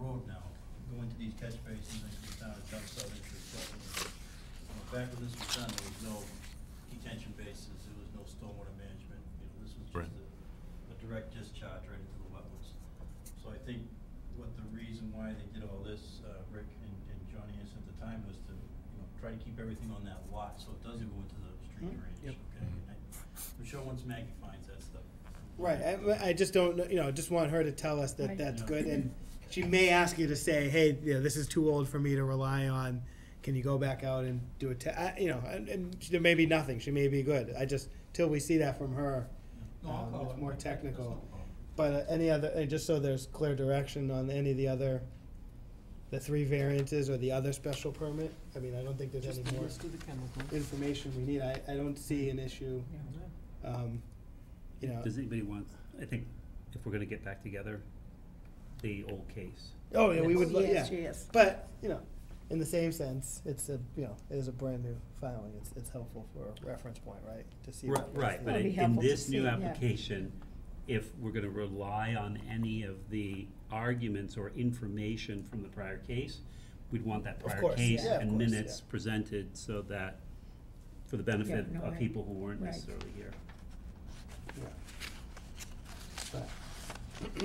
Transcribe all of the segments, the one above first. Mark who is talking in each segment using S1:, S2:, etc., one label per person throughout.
S1: road now, go into these catch basins and come down and dump stuff into the wetlands. Uh, Back when this was done, there was no detention basins, there was no stormwater management, you know, this was
S2: Right.
S1: just a, a direct discharge right into the wetlands. So I think what the reason why they did all this, uh, Rick and, and Johnny is at the time was to, you know, try to keep everything on that lot, so it doesn't go into the street
S3: Mhm.
S1: drainage,
S3: Yep.
S1: okay? And I- I'm sure once Maggie finds that stuff.
S3: Right, I, I just don't, know- you know, just want her to tell us that
S4: Right.
S3: that's
S1: Yeah.
S3: good, and she may ask you to say, hey, you know, this is too old for me to rely on, can you go back out and do a, te- I- you know, and, and she- there may be nothing, she may be good, I just, till we see that from her.
S1: No, I'll
S3: Um,
S1: call
S3: it's
S1: her.
S3: more
S1: That's no
S3: technical.
S1: problem.
S3: But uh, any other, and just so there's clear direction on any of the other, the three variances or the other special permit, I mean, I don't think there's
S4: Just
S3: any
S4: the
S3: more
S4: list of the chemicals.
S3: information we need, I, I don't see an issue,
S4: Yeah.
S3: um, you know.
S5: Does anybody want, I think if we're gonna get back together, the old case.
S3: Oh, yeah, we would, lo- yeah.
S4: Yes, yes.
S3: But, you know, in the same sense, it's a, you know, it is a brand new filing, it's, it's helpful for a reference point, right? To see. what
S5: Right, right, but
S4: That'd be
S5: in- in
S4: helpful to
S5: this
S4: see,
S5: new
S4: yeah.
S5: application, if we're gonna rely on any of the arguments or information from the prior case, we'd want that prior
S3: course,
S5: case
S3: yeah, of
S5: and
S3: course,
S5: minutes
S3: yeah.
S5: presented so that, for the benefit
S4: no,
S5: of
S4: right.
S5: people who weren't
S4: Right.
S5: necessarily here.
S3: Yeah. But-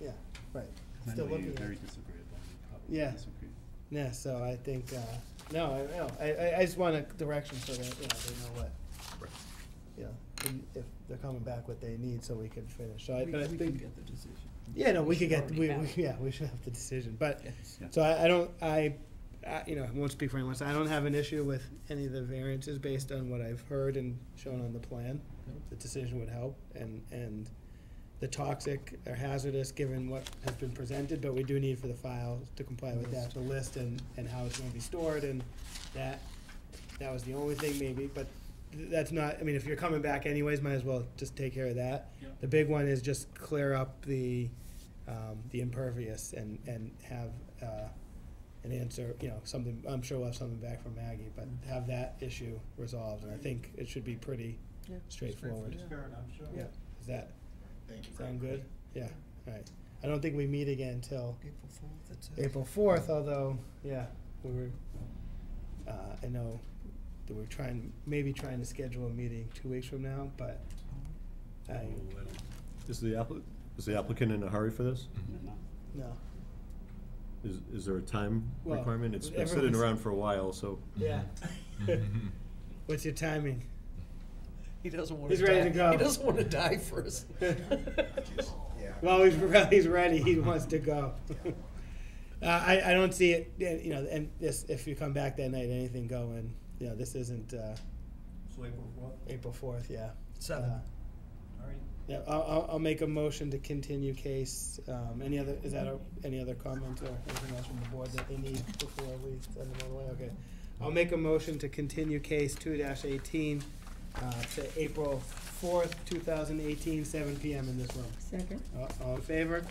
S3: Yeah, right,
S5: I
S3: still
S5: know
S3: looking
S5: you're
S3: at
S5: very
S3: it.
S5: disagreeable, you probably
S3: Yeah.
S5: disagree.
S3: Yeah, so I think, uh, no, I, no, I, I, I just want a direction so that, you know, they know what, you know, and if they're coming back what they need so we can finish, so I,
S4: We-
S3: but I
S4: we
S3: think.
S4: can get
S3: the decision. Yeah, no, we could
S4: should
S3: get,
S4: already
S3: we,
S4: have
S3: we,
S4: it.
S3: yeah, we should have the decision, but,
S5: Yeah.
S3: So I, I don't, I, I, you know, I won't speak for anyone, so I don't have an issue with any of the variances based on what I've heard and shown on the plan. The decision would help, and, and the toxic or hazardous, given what has been presented, but we do need for the file to comply with that, the list and, and how it's gonna be stored, and that, that was the only thing maybe, but th- that's not, I mean, if you're coming back anyways, might as well just take care of that.
S1: Yep.
S3: The big one is just clear up the, um, the impervious and, and have, uh, an answer, you know, something, I'm sure we'll have something back from Maggie, but have that issue resolved, and I think it should be pretty
S4: Yeah.
S3: straightforward.
S1: It's fair enough, sure.
S3: Yeah, does that
S6: Thank you.
S3: sound good? Yeah, alright. I don't think we meet again till
S4: April fourth, that's it.
S3: April fourth, although, yeah, we were, uh, I know that we're trying, maybe trying to schedule a meeting two weeks from now, but I,
S5: Oh, I don't-
S7: Is the applicant, is the applicant in a hurry for this?
S5: I'm not-
S3: no.
S7: Is, is there a time
S3: Well,
S7: requirement? It's been sitting
S3: everyone's-
S7: around for a while, so.
S3: Yeah. What's your timing?
S4: He doesn't wanna die.
S3: He's ready to go.
S4: He doesn't wanna die first.
S6: Yeah.
S3: Well, he's, re- he's ready, he wants to go. Uh, I, I don't see it, yeah, you know, and this, if you come back that night, anything going, you know, this isn't, uh,
S1: So April fourth,
S3: April fourth, yeah.
S4: Seven.
S3: Uh,
S1: all right.
S3: Yeah, I'll, I'll, I'll make a motion to continue case, um, any other, is that a, any other comments or anything else from the board that they need before we send them all away, okay. I'll make a motion to continue case two dash eighteen, uh, to April fourth, two thousand eighteen, seven P M in this room.
S4: Second.
S3: All, Uh, all in favor?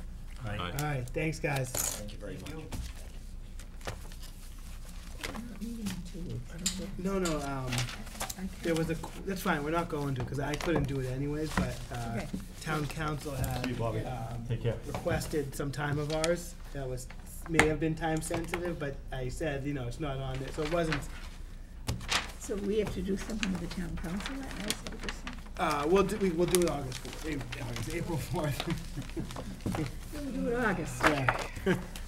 S5: Right.
S2: Aye.
S3: Alright, thanks, guys.
S6: Thank you very
S1: Thank
S6: much.
S1: you.
S4: Meeting in two weeks, I don't think-
S3: No, no, um,
S4: I
S3: there
S4: can't-
S3: was a, qu- that's fine, we're not going to, cause I couldn't do it anyways, but, uh,
S4: Okay.
S3: town council had,
S7: See you, Bobby.
S3: um,
S7: Take care.
S3: requested some time of ours that was, may have been time sensitive, but I said, you know, it's not on it, so it wasn't,
S4: So we have to do something with the town council that night, so this,
S3: uh, we'll do, we, we'll do it August fourth, August, April fourth.
S4: we'll do it August,
S3: Yeah,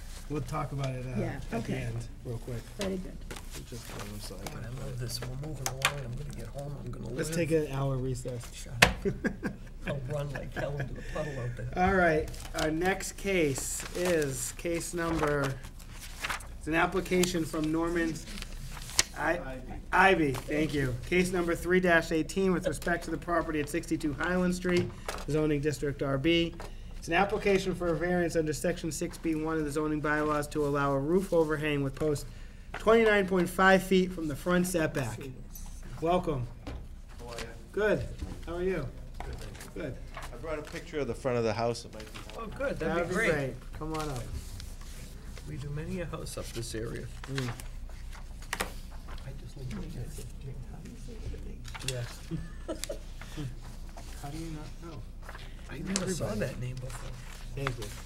S3: we'll talk about it, uh,
S4: Yeah,
S3: at the
S4: okay.
S3: end, real quick.
S4: very good.
S3: Just, um, so I
S8: God,
S3: can-
S8: I love this. We're moving along. I'm gonna get home. I'm gonna live.
S3: Let's take an hour recess.
S8: Shut up. I'll run like hell into the puddle out there.
S3: All right, our next case is case number, it's an application from Norman I- Ivy, thank you. Case number three eighteen with respect to the property at sixty-two Highland Street, zoning district RB. It's an application for a variance under section six B one of the zoning bylaws to allow a roof overhang with post twenty-nine point five feet from the front setback. Welcome.
S9: How are you?
S3: Good. How are you? Good.
S9: I brought a picture of the front of the house, it might be helpful.
S8: Oh, good.
S3: That'd be
S8: great.
S3: great. Come on up.
S8: We do many a house up this area.
S3: Mm.
S8: I just looked at it. How do you say that name?
S3: Yes. How do you not know?
S8: I never saw that name before.
S3: Thank you.